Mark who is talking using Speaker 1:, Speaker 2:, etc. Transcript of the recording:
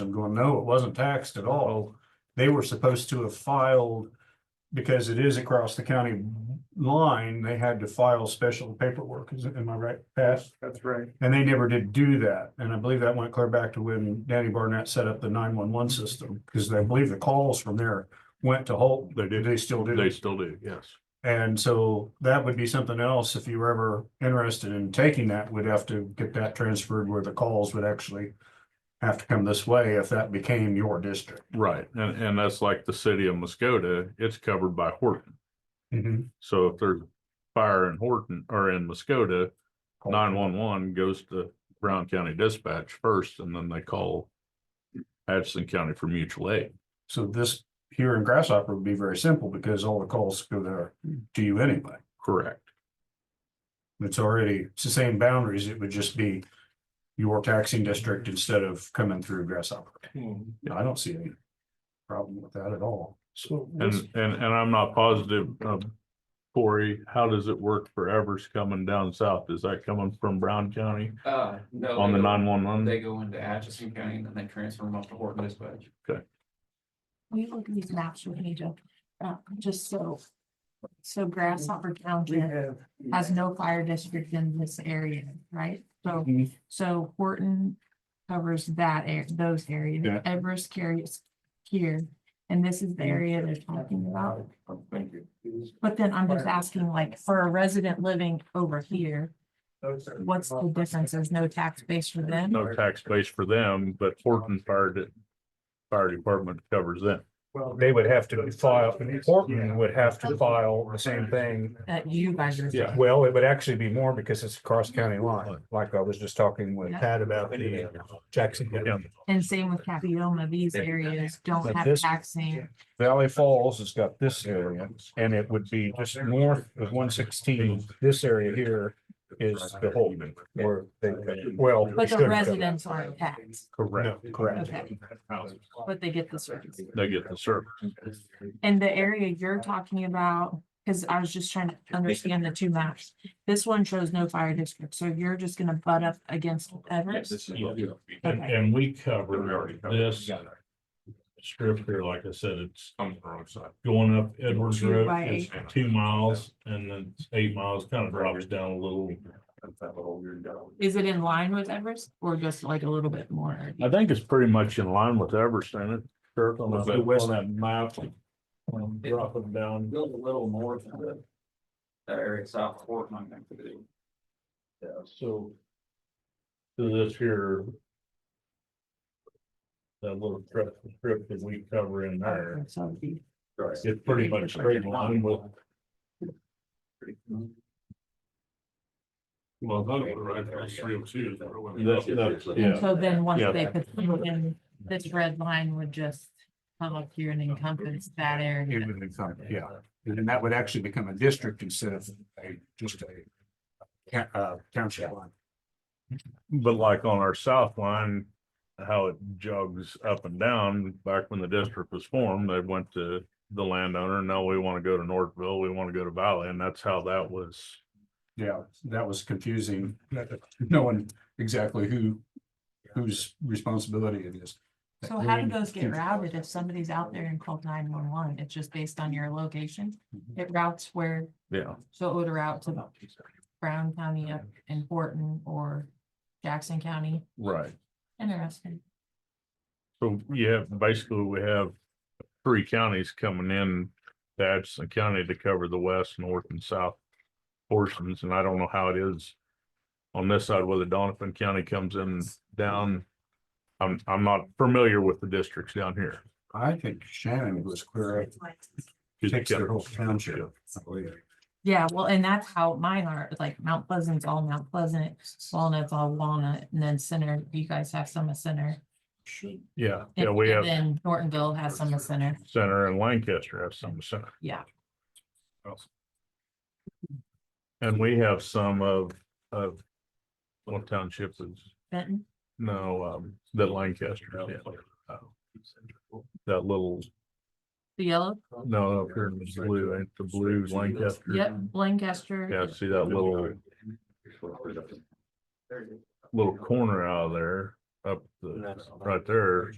Speaker 1: I'm going, no, it wasn't taxed at all. They were supposed to have filed, because it is across the county line, they had to file special paperwork. Is, am I right, Pat?
Speaker 2: That's right.
Speaker 1: And they never did do that. And I believe that went clear back to when Danny Barnett set up the nine-one-one system, because I believe the calls from there went to Holt.
Speaker 3: They did.
Speaker 1: They still do.
Speaker 3: They still do, yes.
Speaker 1: And so that would be something else, if you were ever interested in taking that, we'd have to get that transferred where the calls would actually. Have to come this way if that became your district.
Speaker 3: Right. And, and that's like the city of Muskota, it's covered by Horton. So if there's fire in Horton or in Muskota, nine one one goes to Brown County Dispatch first and then they call Atchison County for mutual aid.
Speaker 1: So this here in Grasshopper would be very simple because all the calls go there to you anyway.
Speaker 3: Correct.
Speaker 1: It's already, it's the same boundaries, it would just be. Your taxing district
Speaker 3: Mm-hmm.
Speaker 1: instead of coming through Grasshopper. I don't see any problem with that at all.
Speaker 2: So.
Speaker 3: And, and, and I'm not positive, um, Corey, how does it work for Evers coming down south? Is that coming from Brown County
Speaker 4: Uh, no.
Speaker 3: on
Speaker 4: they
Speaker 3: the
Speaker 4: go-
Speaker 3: nine one one?
Speaker 4: They go into Atchison County and then they transfer them up to Horton Dispatch.
Speaker 5: We look at these maps we need to, uh, just so. So Grasshopper
Speaker 2: We
Speaker 5: County
Speaker 2: have.
Speaker 5: has no fire district in this area, right? So,
Speaker 3: Mm-hmm.
Speaker 2: Mhm.
Speaker 5: so Horton covers that, ar- those areas,
Speaker 1: Yeah.
Speaker 5: Everest carries here. And this is the area they're talking about,
Speaker 4: Thank you.
Speaker 5: but then I'm just asking like for a resident living over here, what's the difference? There's no tax base for them?
Speaker 3: no tax base for them, but Horton Fire, De- Fire Department covers them.
Speaker 2: Well,
Speaker 1: They would have to file, Portland would have to file the same thing.
Speaker 5: That you guys are.
Speaker 3: Yeah.
Speaker 1: Well, it would actually be more because it's cross county line, like I was just talking with Pat about the uh, Jackson
Speaker 3: Yeah.
Speaker 5: And same with Capioma, these
Speaker 3: Yeah.
Speaker 5: areas don't
Speaker 1: But
Speaker 5: have
Speaker 1: this-
Speaker 5: taxing.
Speaker 1: Valley Falls has got this area and it would be just north of one sixteen. This area here is the whole, where they, well.
Speaker 5: But
Speaker 1: should
Speaker 5: the
Speaker 1: have-
Speaker 5: residents aren't taxed,
Speaker 1: Correct, correct.
Speaker 5: Okay. but they get the service.
Speaker 3: They get the service.
Speaker 5: And the area you're talking about, because I was just trying to understand the two maps. This one shows no fire district, so you're just gonna butt up against Everest.
Speaker 3: And,
Speaker 5: Okay.
Speaker 3: and we cover this strip here, like I said, it's
Speaker 4: On the wrong side.
Speaker 3: going up Edwards
Speaker 5: Two
Speaker 3: Road,
Speaker 5: by
Speaker 3: it's two miles, and then it's eight miles, kind of drops down a little.
Speaker 5: Is it in line with Everest or just like a little bit more?
Speaker 3: I think it's pretty much in line with Everest, isn't it? Kirk, on
Speaker 1: Well,
Speaker 3: that-
Speaker 1: the west-
Speaker 3: on that map, um, dropping down.
Speaker 4: Go a little north of the. That area south of Horton, I think. they do.
Speaker 3: So. To this here. That little strip, strip that we cover in there,
Speaker 5: So it'd be-
Speaker 3: it's pretty much straight line with. Well,
Speaker 4: that would right there, it's three oh two.
Speaker 3: That's, that's,
Speaker 5: And
Speaker 3: yeah,
Speaker 5: so then once
Speaker 3: Yeah.
Speaker 5: they put, it in, this red line would just come up here and encompass that
Speaker 1: It
Speaker 5: area.
Speaker 1: would become, yeah, and then that would actually become a district instead of a, just a. ca- Uh, township line.
Speaker 3: but like on our south line. How it jogs up and down, back when the district was formed, they went to the landowner, now we wanna go to Northville, we wanna go to Valley, and that's how that was.
Speaker 1: Yeah, that was confusing, knowing exactly who, whose responsibility it is.
Speaker 5: So how do those get routed if somebody's out there and called nine one one? It's just based on your location? It routes where,
Speaker 3: Mm-hmm. Yeah.
Speaker 5: so it would route to Brown County up in Horton or Jackson County.
Speaker 3: Right.
Speaker 5: Interesting.
Speaker 3: So you have, basically, we have three counties coming in, to Atchison County to cover the west, north and south portions, and I don't know how it is. On this side, whether Donovan County comes in down, I'm, I'm not familiar with the districts down here.
Speaker 1: I think Shannon was clear. up. Takes their whole township. I believe.
Speaker 5: Yeah, well, and that's how mine are, it's like Mount Pleasant's all Mount Pleasant, Walnut's all Walnut, and then Center, you guys have some of Center.
Speaker 3: Yeah,
Speaker 5: And-
Speaker 3: yeah, we
Speaker 5: and
Speaker 3: have
Speaker 5: Then Nortonville has some of Center,
Speaker 3: center and Lancaster have some center,
Speaker 5: yeah.
Speaker 3: and we have some of, of. What township is,
Speaker 5: Benton,
Speaker 3: no, um, that Lancaster, yeah. That little
Speaker 5: the yellow,
Speaker 3: No, up here in the blue, ain't the blue Lancaster.
Speaker 5: yep, Lancaster.
Speaker 3: Yeah, see that little, little corner out of there, up the, right there,